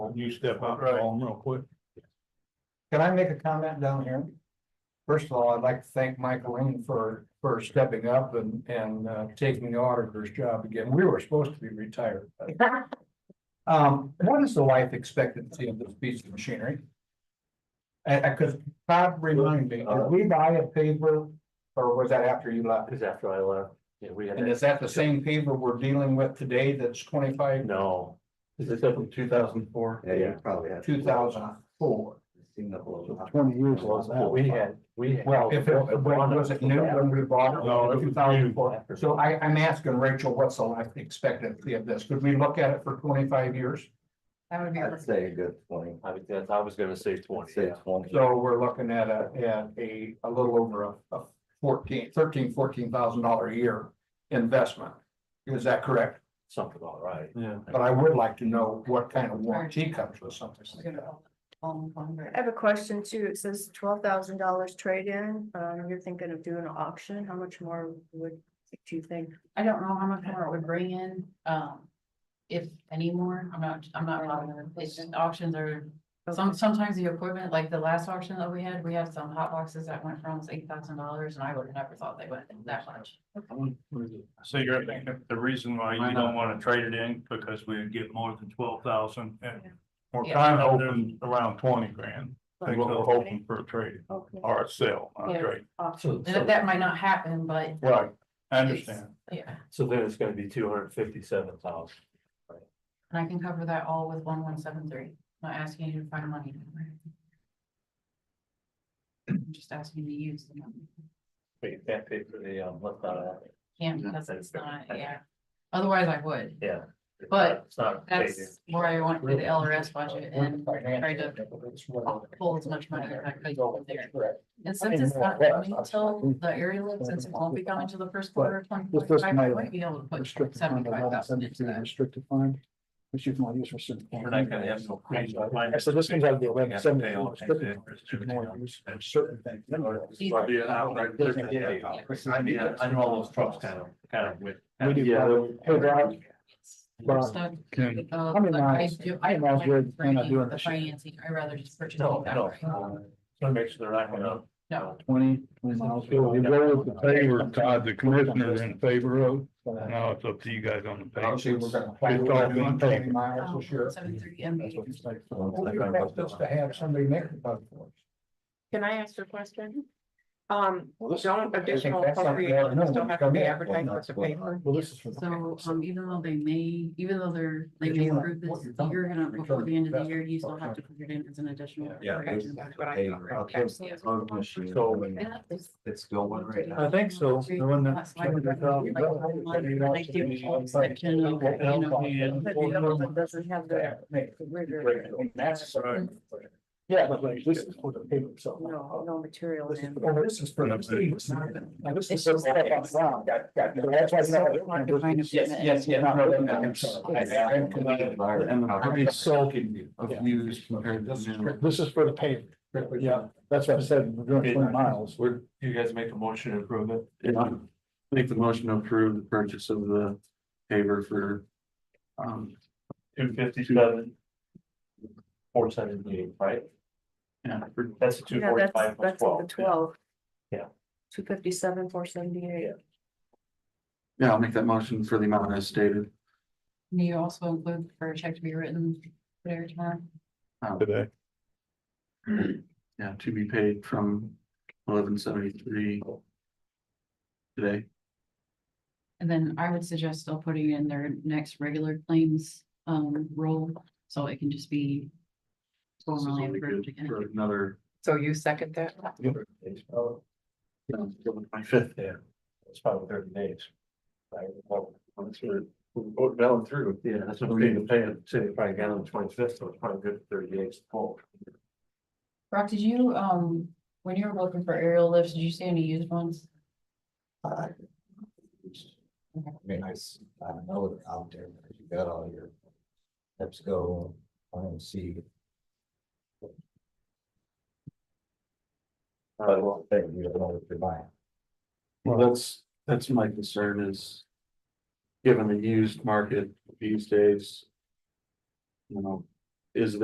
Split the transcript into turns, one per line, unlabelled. you step out,
Right.
call them real quick.
Can I make a comment down here? First of all, I'd like to thank Mike Lane for, for stepping up and, and uh, taking the auditor's job again. We were supposed to be retired. but- Um, what is the life expectancy of this piece of machinery? And, and could Todd remind me, did we buy a paper or was that after you left?
Cause after I left, yeah, we had,
And is that the same paper we're dealing with today that's twenty-five,
no, is this up from two thousand four?
Yeah, you probably have.
two thousand four?
Seen the whole.
Twenty years
We had, we had.
Well, if it was it new when we bought it,
No, it was
two thousand four. So I, I'm asking Rachel, what's the life expectancy of this? Could we look at it for twenty-five years?
That would be,
I'd say a good twenty.
I was, that's- I was gonna say
I'd
twenty,
say
yeah.
twenty.
So we're looking at a, at a, a little over a, a fourteen, thirteen, fourteen thousand dollar a year investment. Is that correct?
something about right.
Yeah.
But I would like to know what kind of warranty comes with something like that.
um, I have a question too. It says twelve thousand dollars trade-in. Um, you're thinking of doing an auction. How much more would, do you think?
I don't know how much more it would bring in, um. If any more, I'm not, I'm not, bothered. it's just auctions are, some, sometimes the equipment, like the last auction that we had, we had some hot boxes that went for almost eight thousand dollars and I would have never thought they went that much.
So you're thinking the reason why you don't wanna trade it in, because we would get more than twelve thousand and. We're
Yeah.
kind of hoping around twenty grand, that's what we're hoping for a trade,
Okay.
or a sale, not a
Yeah.
trade,
So,
That, that might not happen, but
right, I understand.
yeah,
so then it's gonna be two hundred fifty-seven thousand.
and I can cover that all with one one seven three, not asking you to find money. I'm Just asking you to use the money.
But you can't pay for the, um, lift out of that.
Can't, because it's not, yeah. Otherwise I would.
Yeah.
But
It's not.
That's where I want to do the LRS budget and try to pull as much money as I could from there.
Correct.
And since it's not coming until the area lift, since it won't be going to the first quarter of twenty
This doesn't
twenty-five, I
matter.
wouldn't be able to put
restricted fund,
seventy-five
eleven
thousand into
seventy-three
that.
restricted fund, which you can only use for certain.
We're not gonna have no.
Yeah, So this comes out of the eleven seventy.
Oh, I mean, I know all those trucks kind of, kind of with.
We do- But
So,
can-
uh,
How many
but I
miles-
do,
how
I
many
don't
miles you're-
like
you're not
bringing
doing
the
this year?
financing, I'd rather just purchase it
No, no.
outright.
Gonna make sure they're not gonna.
No,
Twenty, twenty miles.
So you go with the favor, Todd, the commissioner's in favor of, now it's up to you guys on the pay.
Obviously, we're gonna plan
It's all
on doing
one
twenty
thing.
miles this year.
um, seventy-three MB.
Well, you're not supposed to have somebody make the bug for us.
Can I ask a question? Um,
this-
don't
I think
additional
that's something I don't know
appropriations don't
what's
have to be
coming up,
advertised
whatnot,
as a paper.
Well, this is for.
So, um, even though they may, even though they're, they
Because you
may
want
approve
what
this,
you're done,
you're gonna,
return
before the end of the
investment.
year, you still have to put it in as an additional.
Yeah.
correction.
That's what I
Hey,
thought.
I'll tell you, Code machine,
Yeah, it's-
It's going right now.
I think so, the one that-
That's why we're running like one month, and I do a whole section of, you know,
But the other
um,
one doesn't have the rigor,
That's right.
Yeah, but like, this is for the paper itself.
no, no material
This is-
in.
Oh, this is for the city. it's not- now this is-
It's just-
That's why it's not-
Yes, yes, yeah, no, no, no, I'm sorry. I- I'm committed. I'm sulking of news compared to. new.
This is for the paper. Yeah, that's what I said, we're doing twenty miles.
We're, you guys make a motion to approve it.
Make the motion to approve the purchase of the paver for. Um,
Two fifty-seven. Four seventy-eight, right?
yeah, for
That's the two
Yeah, that's,
forty-five plus
that's at the
twelve.
twelve.
Yeah.
Two fifty-seven, four seventy-eight.
Yeah, I'll make that motion for the amount as stated.
and you also include for a check to be written there tomorrow.
Um,
Today.
Yeah, to be paid from eleven seventy-three. Today,
And then I would suggest still putting in their next regular claims, um, roll, so it can just be.
this is
formally
only
approved
good
again.
for another.
So you second that?
Fifth,
Yeah. It's probably thirty days. Right, well, Once we're, we're voting down through, yeah, that's what we need to pay, say, probably got on the twenty-fifth, so it's probably good for thirty days. full.
Rob, did you, um, when you were looking for aerial lifts, did you see any used ones?
I mean, I, s- I know they're out there, but you got all your. Let's go, IMC. I don't think you don't know what you're buying.
well, that's, that's my concern is. Given the used market these days. You know, is